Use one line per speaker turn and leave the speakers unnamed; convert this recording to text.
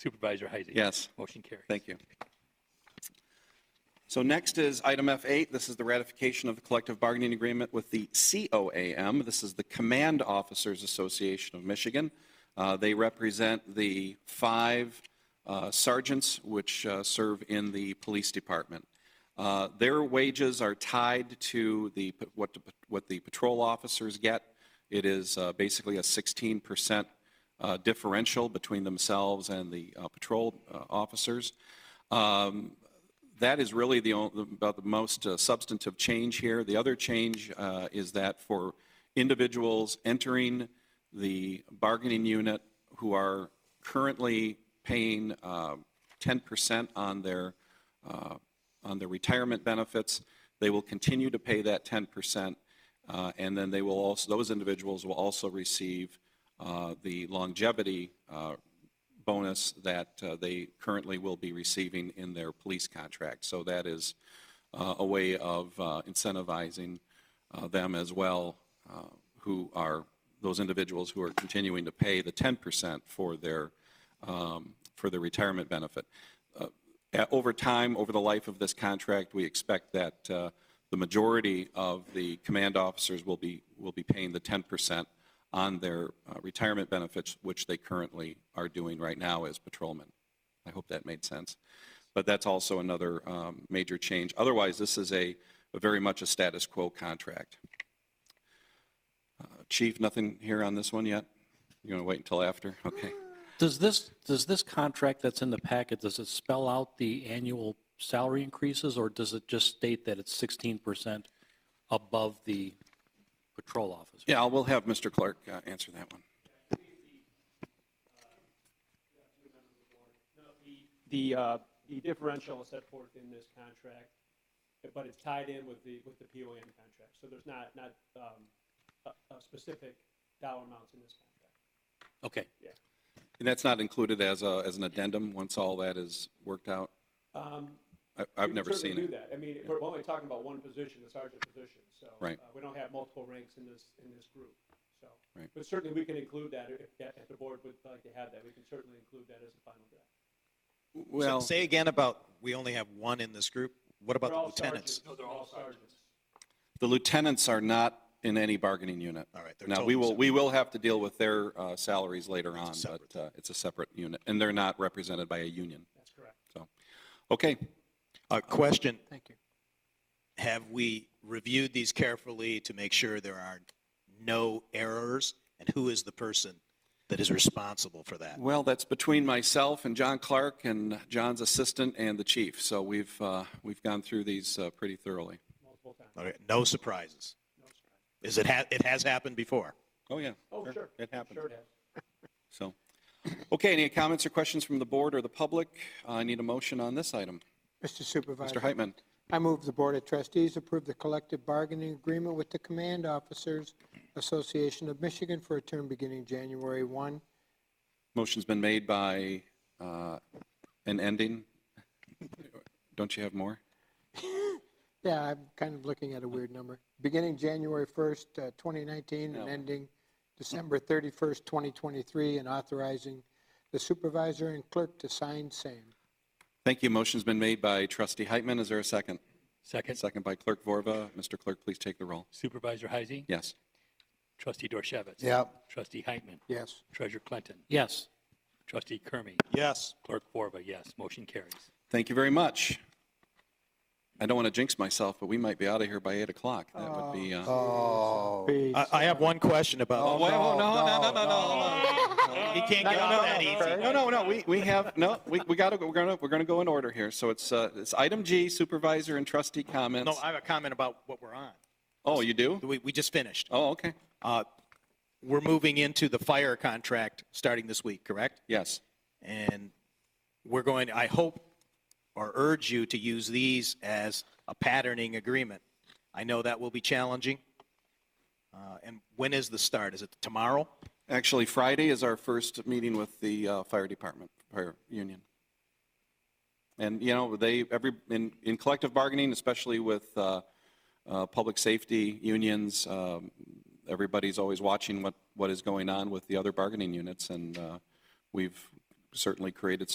Supervisor Heisey?
Yes.
Motion carries.
Thank you. So next is item F8. This is the ratification of the collective bargaining agreement with the COAM. This is the Command Officers Association of Michigan. Uh, They represent the five uh, sergeants which uh, serve in the police department. Uh, Their wages are tied to the, what the- what the patrol officers get. It is uh, basically a 16% uh, differential between themselves and the uh, patrol uh, officers. Um, that is really the, on- the- about the most uh, substantive change here. The other change uh, is that for individuals entering the bargaining unit who are currently paying uh, 10% on their, uh, on their retirement benefits, they will continue to pay that 10%, uh, and then they will also, those individuals will also receive uh, the longevity uh, bonus that uh, they currently will be receiving in their police contract. So that is uh, a way of uh, incentivizing uh, them as well, uh, who are those individuals who are continuing to pay the 10% for their um, for their retirement benefit. Uh, a- over time, over the life of this contract, we expect that uh, the majority of the command officers will be will be paying the 10% on their uh, retirement benefits, which they currently are doing right now as patrolmen. I hope that made sense. But that's also another um, major change. Otherwise, this is a, a very much a status quo contract. Uh, Chief, nothing here on this one yet? You want to wait until after? Okay.
Does this, does this contract that's in the packet, does it spell out the annual salary increases, or does it just state that it's 16% above the patrol officer?
Yeah, we'll have Mr. Clark uh, answer that one.
The, uh, the differential is set forth in this contract, but it's tied in with the, with the POAM contract. So there's not, not, um, a, a specific dollar amounts in this contract.
Okay,
And that's not included as a, as an addendum, once all that is worked out?
Um,
I-
we
I've
can
never
certainly
seen it.
Do that. I mean, we're only talking about one position, the sergeant position, so.
Right.
uh, We don't have multiple ranks in this, in this group, so.
Right.
But certainly we can include that if, if the board would like to have that. We can certainly include that as a final draft.
So
Well,
Say again about, we only have one in this group. What about
They're
the
all
lieutenants?
sergeants. No, they're all sergeants.
the lieutenants are not in any bargaining unit.
All right, they're
Now, we
totally
will, we will have to deal with their uh, salaries later on, but
separate
uh, it's a separate unit, and they're not represented by a union.
That's correct.
So, okay,
A question,
Thank you.
have we reviewed these carefully to make sure there are no errors? And who is the person that is responsible for that?
well, that's between myself and John Clark and John's assistant and the chief, so we've, uh, we've gone through these uh, pretty thoroughly.
Multiple times.
Okay, No surprises. Is it, ha- it has happened before?
Oh, yeah.
Oh, sure.
It happened.
Sure it has.
So, okay, any comments or questions from the board or the public? I need a motion on this item.
Mr.
Mr.
Supervisor,
Heitman,
I move the Board of Trustees approve the collective bargaining agreement with the Command Officers Association of Michigan for a term beginning January 1.
motion's been made by, uh, an ending. Don't you have more?
Yeah, I'm kind of looking at a weird number. Beginning January 1st, uh, 2019, and
No.
ending December 31st, 2023, and authorizing the supervisor and clerk to sign same.
Thank you. Motion's been made by trustee Heitman. Is there a second?
Second,
Second by clerk Vorva. Mr. Clerk, please take the roll.
Supervisor Heisey?
Yes.
Trustee Dorchevitz?
Yep.
Trustee Heitman?
Yes.
Treasurer Clinton?
yes.
Trustee Kermy?
Yes.
Clerk Borba, yes. Motion carries.
Thank you very much. I don't want to jinx myself, but we might be out of here by 8 o'clock. That would be, uh, oh,
Please.
I, I have one question about,
wait, oh, no, no, no, no, no, no.
he can't get out that easy.
No, no, no, we, we have, no, we, we gotta, go- we're gonna, we're gonna go in order here. So it's, uh, it's item G, supervisor and trustee
No,
comments.
I have a comment about what we're on.
Oh, you do?
We, we just finished.
Oh, okay.
Uh, We're moving into the fire contract starting this week, correct?
Yes.
And we're going, I hope or urge you to use these as a patterning agreement. I know that will be challenging. Uh, And when is the start? Is it tomorrow?
Actually, Friday is our first meeting with the uh, fire department, fire union. And, you know, they, every, in, in collective bargaining, especially with uh, uh, public safety unions, um, everybody's always watching what, what is going on with the other bargaining units, and uh, we've certainly created